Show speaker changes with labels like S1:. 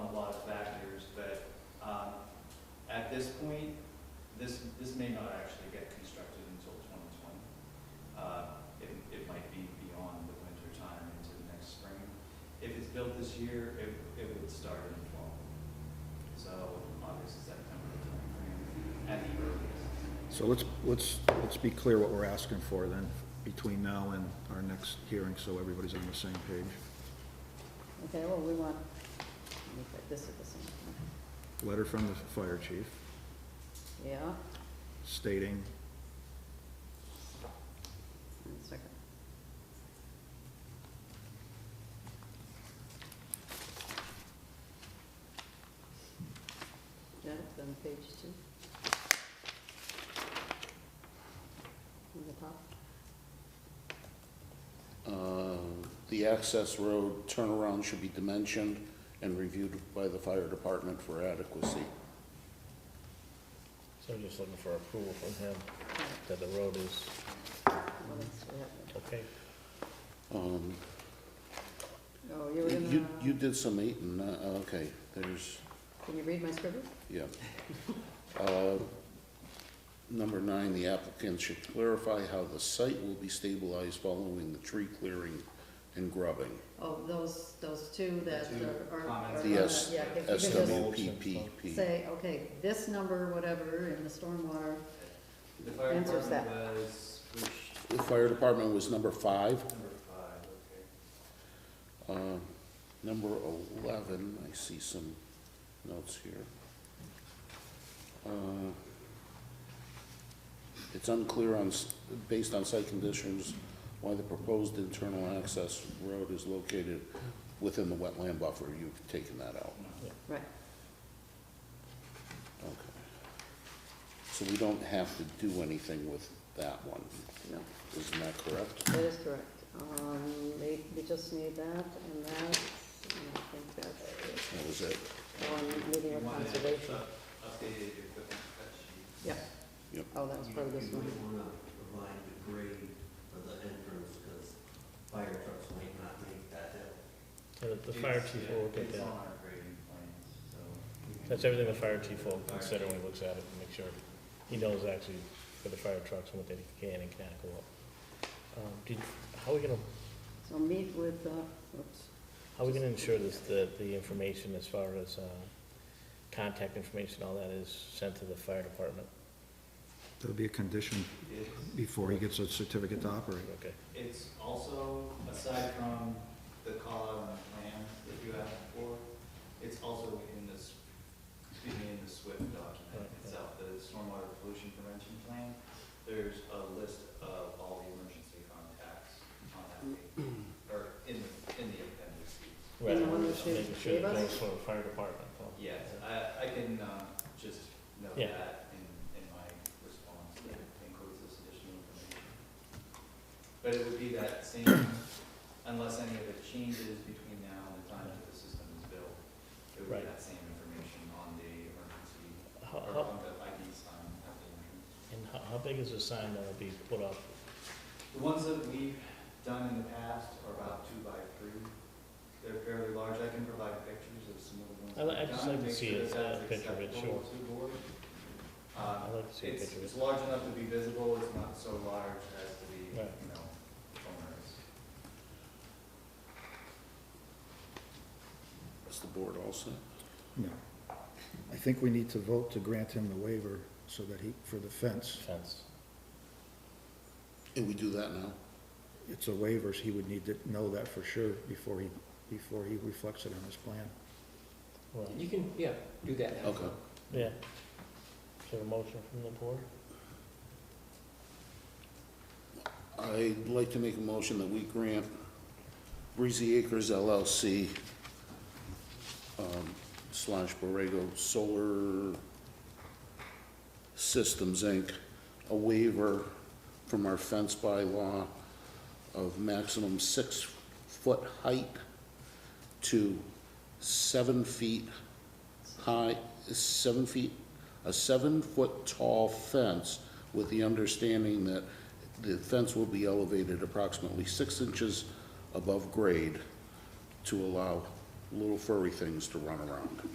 S1: um, at this point, this, this may not actually get constructed until twenty twenty. Uh, it, it might be beyond the winter time into the next spring. If it's built this year, it, it would start in fall. So August, September timeframe at the earliest.
S2: So let's, let's, let's be clear what we're asking for then, between now and our next hearing, so everybody's on the same page.
S3: Okay, well, we want, let me put this at the same time.
S2: Letter from the fire chief
S3: Yeah,
S2: stating,
S3: one second. Yeah, it's on page two. On the top.
S4: Uh, The access road turnaround should be dimensioned and reviewed by the fire department for adequacy.
S5: So I'm just looking for approval from him
S3: Right,
S5: that the road is
S3: what else do we have?
S5: okay.
S4: Um,
S3: Oh, you were
S4: You, you
S3: gonna,
S4: did some eating, uh, okay, there's,
S3: can you read my scribble?
S4: yeah. Uh, Number nine, the applicant should clarify how the site will be stabilized following the tree clearing and grubbing.
S3: Oh, those, those two that
S1: The two
S3: are- are.
S1: comments.
S3: are
S4: The
S3: on
S4: S-
S3: the- yeah, if you
S4: S
S3: could
S5: just-
S4: W P P
S3: just
S4: P.
S3: Say, okay, this number, whatever, in the stormwater,
S1: The fire
S3: Answers
S1: department was, which,
S4: The fire department was number five.
S1: number five, okay.
S4: Uh, Number 11, I see some notes here. Uh, It's unclear on, s- based on site conditions, why the proposed internal access road is located within the wetland buffer. You've taken that out.
S3: right,
S4: Okay. So we don't have to do anything with that one,
S3: no,
S4: isn't that correct?
S3: that is correct. Um, we, we just need that and that, and I think that's
S4: That was it?
S3: it. One meeting
S1: You
S3: with
S1: wanted
S3: conservation.
S1: up- Updated your equipment cut sheet.
S3: Yeah.
S4: Yep.
S3: Oh, that was
S6: You
S3: part of this
S6: you
S3: one.
S6: might wanna provide the grade of the entrance, because fire trucks might not make that hill.
S5: And the fire
S1: It's-
S5: chief
S1: yeah,
S5: will look at
S1: It's
S5: that.
S1: on our grading plans, so. we can-
S5: That's everything the fire chief will
S1: Fire
S5: consider
S1: chief.
S5: when he looks at it and make sure he knows actually for the fire trucks and what they can and can't go up. Um, Did, how are we gonna,
S3: So meet with, uh, oops,
S5: how are we gonna ensure this, that the information as far as, uh, contact information, all that is sent to the fire department?
S2: there'll be a condition
S1: It's-
S2: before he gets a certificate to operate.
S5: Okay,
S1: It's also, aside from the call out on the plan that you asked for, it's also in this, excuse me, in the SWIFT document
S5: Right.
S1: itself, the Stormwater Pollution Prevention Plan. There's a list of all the emergency contacts on that page, or in, the- in the appendices.
S5: right,
S3: And the one
S5: I'm
S3: that
S5: just
S3: you
S5: making sure
S3: gave
S5: that
S3: us?
S5: goes for the fire department, though.
S1: Yes, I, I can, uh, just note
S5: Yeah.
S1: that in, in my response, that it includes this additional information. But it would be that same, unless any of it changes between now and the time that the system is built, it would be
S5: Right.
S1: that same information on the emergency,
S5: How,
S1: or
S5: how,
S1: on the ID sign at the entrance.
S5: and how, how big is the sign that will be put up?
S1: The ones that we've done in the past are about two by three. They're fairly large. I can provide pictures of some of the ones.
S5: I'd li- I'd
S1: we've
S5: just
S1: done,
S5: like to
S1: make
S5: see
S1: sure
S5: a-
S1: that that's
S5: a picture of it,
S1: acceptable to the board. Uh,
S5: I'd like to see a
S1: it's-
S5: picture of it.
S1: It's large enough to be visible. It's not so large as to be, you know,
S5: Right.
S1: onerous.
S4: Is the board also?
S2: No. I think we need to vote to grant him the waiver so that he, for the fence.
S5: Fence.
S4: And we do that now?
S2: It's a waiver, so he would need to know that for sure before he, before he reflects it on his plan.
S5: Right.
S7: You can, yeah, do that now.
S4: Okay.
S5: Yeah. Is there a motion from the board?
S4: I'd like to make a motion that we grant Breezy Acres LLC um, slash Borrego Solar Systems, Inc., a waiver from our fence bylaw of maximum six-foot height to seven feet high, seven feet, a seven-foot tall fence with the understanding that the fence will be elevated approximately six inches above grade to allow little furry things to run around.